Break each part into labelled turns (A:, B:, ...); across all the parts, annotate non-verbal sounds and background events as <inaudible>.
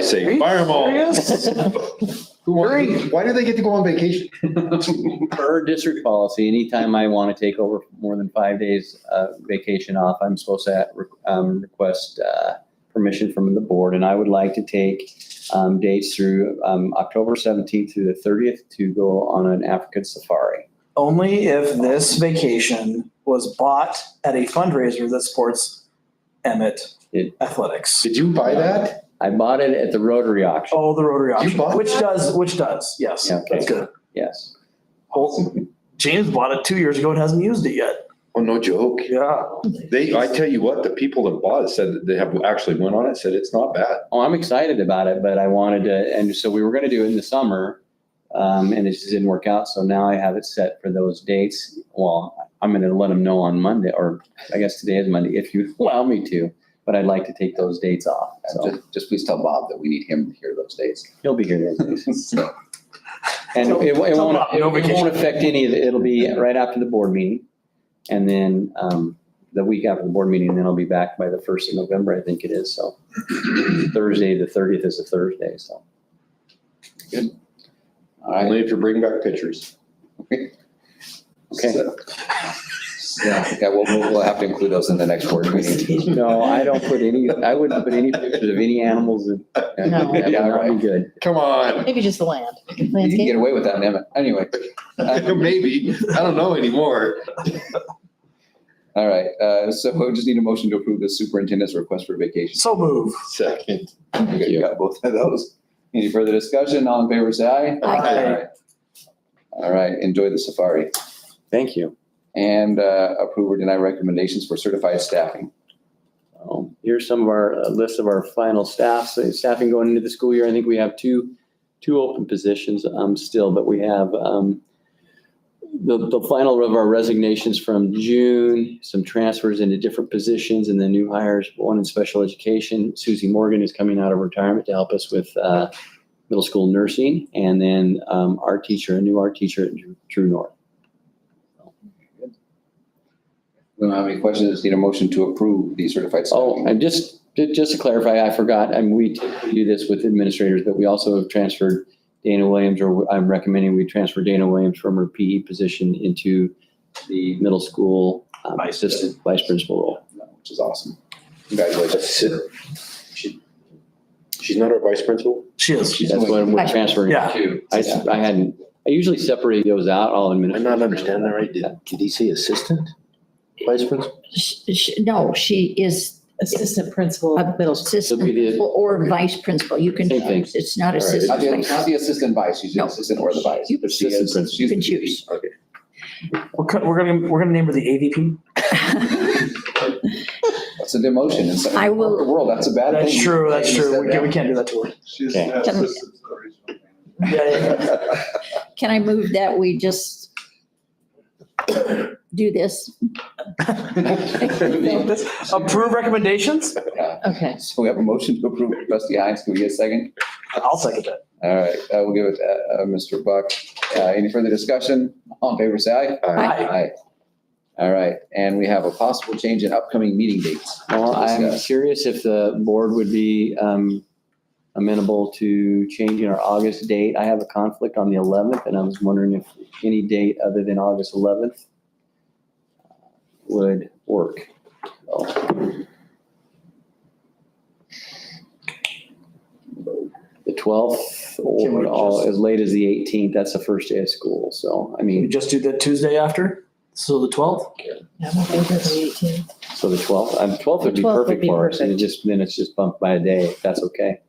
A: say, fire them all.
B: Who wants, why do they get to go on vacation?
C: Per district policy, anytime I want to take over more than five days uh, vacation off, I'm supposed to um, request uh, permission from the board. And I would like to take um, dates through um, October 17th through the 30th to go on an African safari.
D: <laughs> Only if this vacation was bought at a fundraiser that supports Emmett
C: It-
D: Athletics.
B: Did you buy that?
C: I bought it at the Rotary auction,
D: Oh, the Rotary auction,
B: bought
D: which
B: that?
D: does, which does, yes,
C: Yeah, okay.
D: that's good.
C: yes.
D: Well, James bought it two years ago and hasn't used it yet.
B: Oh, no joke.
D: Yeah.
A: They, I tell you what, the people that bought it said that they have actually went on it, said it's not bad.
C: Oh, I'm excited about it, but I wanted to, and so we were going to do it in the summer. Um, and it just didn't work out. So now I have it set for those dates. Well, I'm going to let them know on Monday, or I guess today is Monday, if you <laughs> allow me to. But I'd like to take those dates off. So
E: Just, just please tell Bob that we need him to hear those dates.
C: he'll be here
D: <laughs>
C: those days. And it, it won't, it
D: Tell Bob, no vacation.
C: won't affect any of it. It'll be right after the board meeting. And then, um, the week after the board meeting, then I'll be back by the first of November, I think it is. So Thursday, the 30th is a Thursday. So.
E: All right.
A: Only if you bring back pictures.
C: Okay.
E: So- Yeah, yeah, we'll, we'll we'll have to include those in the next board meeting.
C: No, I don't put any, I wouldn't put any pictures of any animals in.
F: No.
C: That would
E: Yeah,
C: not be
E: right.
C: good.
B: Come
A: <laughs>
B: on.
F: Maybe just the land,
E: You can get
F: landscape.
E: away with that, Emmett. Anyway. uh,
A: <laughs>
B: Maybe. I don't know anymore.
E: All right, uh, so we just need a motion to approve the superintendent's request for vacation.
D: So move.
B: Second.
E: You got both of those. Any further discussion? All in favor, say aye.
B: Aye.
E: All right. All right, enjoy the safari.
C: Thank you.
E: And uh, approve or deny recommendations for certified staffing.
C: Um, Here's some of our uh, list of our final staff, so staffing going into the school year. I think we have two, two open positions um, still, but we have um, the, the final of our resignations from June, some transfers into different positions and then new hires, one in special education. Susie Morgan is coming out of retirement to help us with uh, middle school nursing. And then um, our teacher, a new art teacher at True North.
E: We don't have any questions, just need a motion to approve the certified
C: Oh,
E: staffing.
C: and just, ju- just to clarify, I forgot, and we typically do this with administrators, but we also have transferred Dana Williams, or I'm recommending we transfer Dana Williams from her PE position into the middle school um,
D: Vice
C: assistant vice principal role.
E: Which is awesome. Congratulations.
A: She's not our vice principal?
D: She is.
C: That's what we're transferring
D: Yeah.
C: to. I, s- I hadn't, I usually separate those out, all administrators.
A: right. Did, did he say assistant? Vice principal?
F: Sh- sh- No, she is
G: Assistant principal.
F: a middle
C: So we
F: assistant
C: did-
F: or vice principal. You can
C: Same thing.
F: choose. It's not
A: All right.
E: Not the,
F: assistant.
E: not
F: vice.
E: the assistant vice, she's the
F: No.
E: assistant or the vice.
F: You-
E: But she
C: Assistant
E: is-
C: principal.
E: she's
F: You can
E: the VP.
F: choose.
E: Okay.
D: We're, co- we're gonna, we're gonna name her the AVP.
E: That's a demotion in some
F: I
E: in the
F: will-
E: corporate world, that's a bad thing.
D: That's true, that's
E: You
D: true. We
E: said
D: can't, we
E: <laughs>
D: can't do that to her.
H: She's
C: Okay.
H: an assistant regional
D: Yeah, yeah, yeah.
E: that.
F: <laughs> Can I move that we just do this?
D: This- Approve recommendations?
F: Okay.
E: So we have a motion to approve, trustee Heinz, can we get a second?
D: I'll second that.
E: All right, uh, we'll give it, uh, uh, Mr. Buck, uh, any further discussion? All in favor, say aye.
D: Aye.
E: Aye. All right, and we have a possible change in upcoming meeting dates.
C: Well, I'm
E: Discuss.
C: curious if the board would be um, amenable to changing our August date. I have a conflict on the 11th, and I was wondering if any date other than August 11th would work. So. The 12th
D: Can we
C: or all-
D: just-
C: as late as the 18th, that's the first day of school, so, I
D: We
C: mean,
D: just do the Tuesday after, so the twelfth?
G: Yeah, I'm okay with the 18.
C: so the 12th, um, 12th would be
G: 12th would
C: perfect
G: be
C: for us, and it
G: perfect.
C: just, then it's just bumped by a day, if that's okay.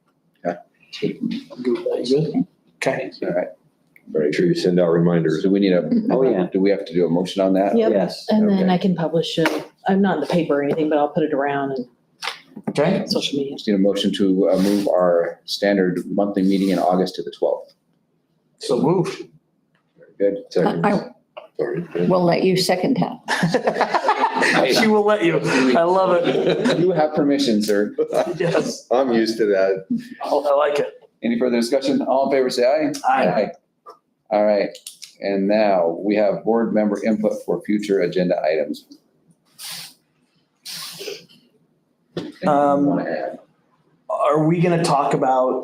D: Good. Okay.
E: All right,
A: Make sure you send out reminders.
E: so we need a,
C: Oh, yeah.
E: do we have to do a motion on that?
G: Yep.
C: Yes.
G: And then
E: Okay.
G: I can publish it. I'm not in the paper or anything, but I'll put it around
D: Okay.
G: and social media.
E: Just need a motion to uh, move our standard monthly meeting in August to the 12th.
D: So moved.
E: Good.
A: Second.
F: Uh, I
A: Sorry.
F: will let you second that.
D: She will let you. I love it.
E: You have permission, sir.
D: Yes,
A: <laughs> I'm used to that.
D: I like it.
E: Any further discussion? All in favor, say aye.
D: Aye.
E: All right, and now we have board member input for future agenda items. Anything you
D: Um,
E: wanna add?
D: Are we gonna talk about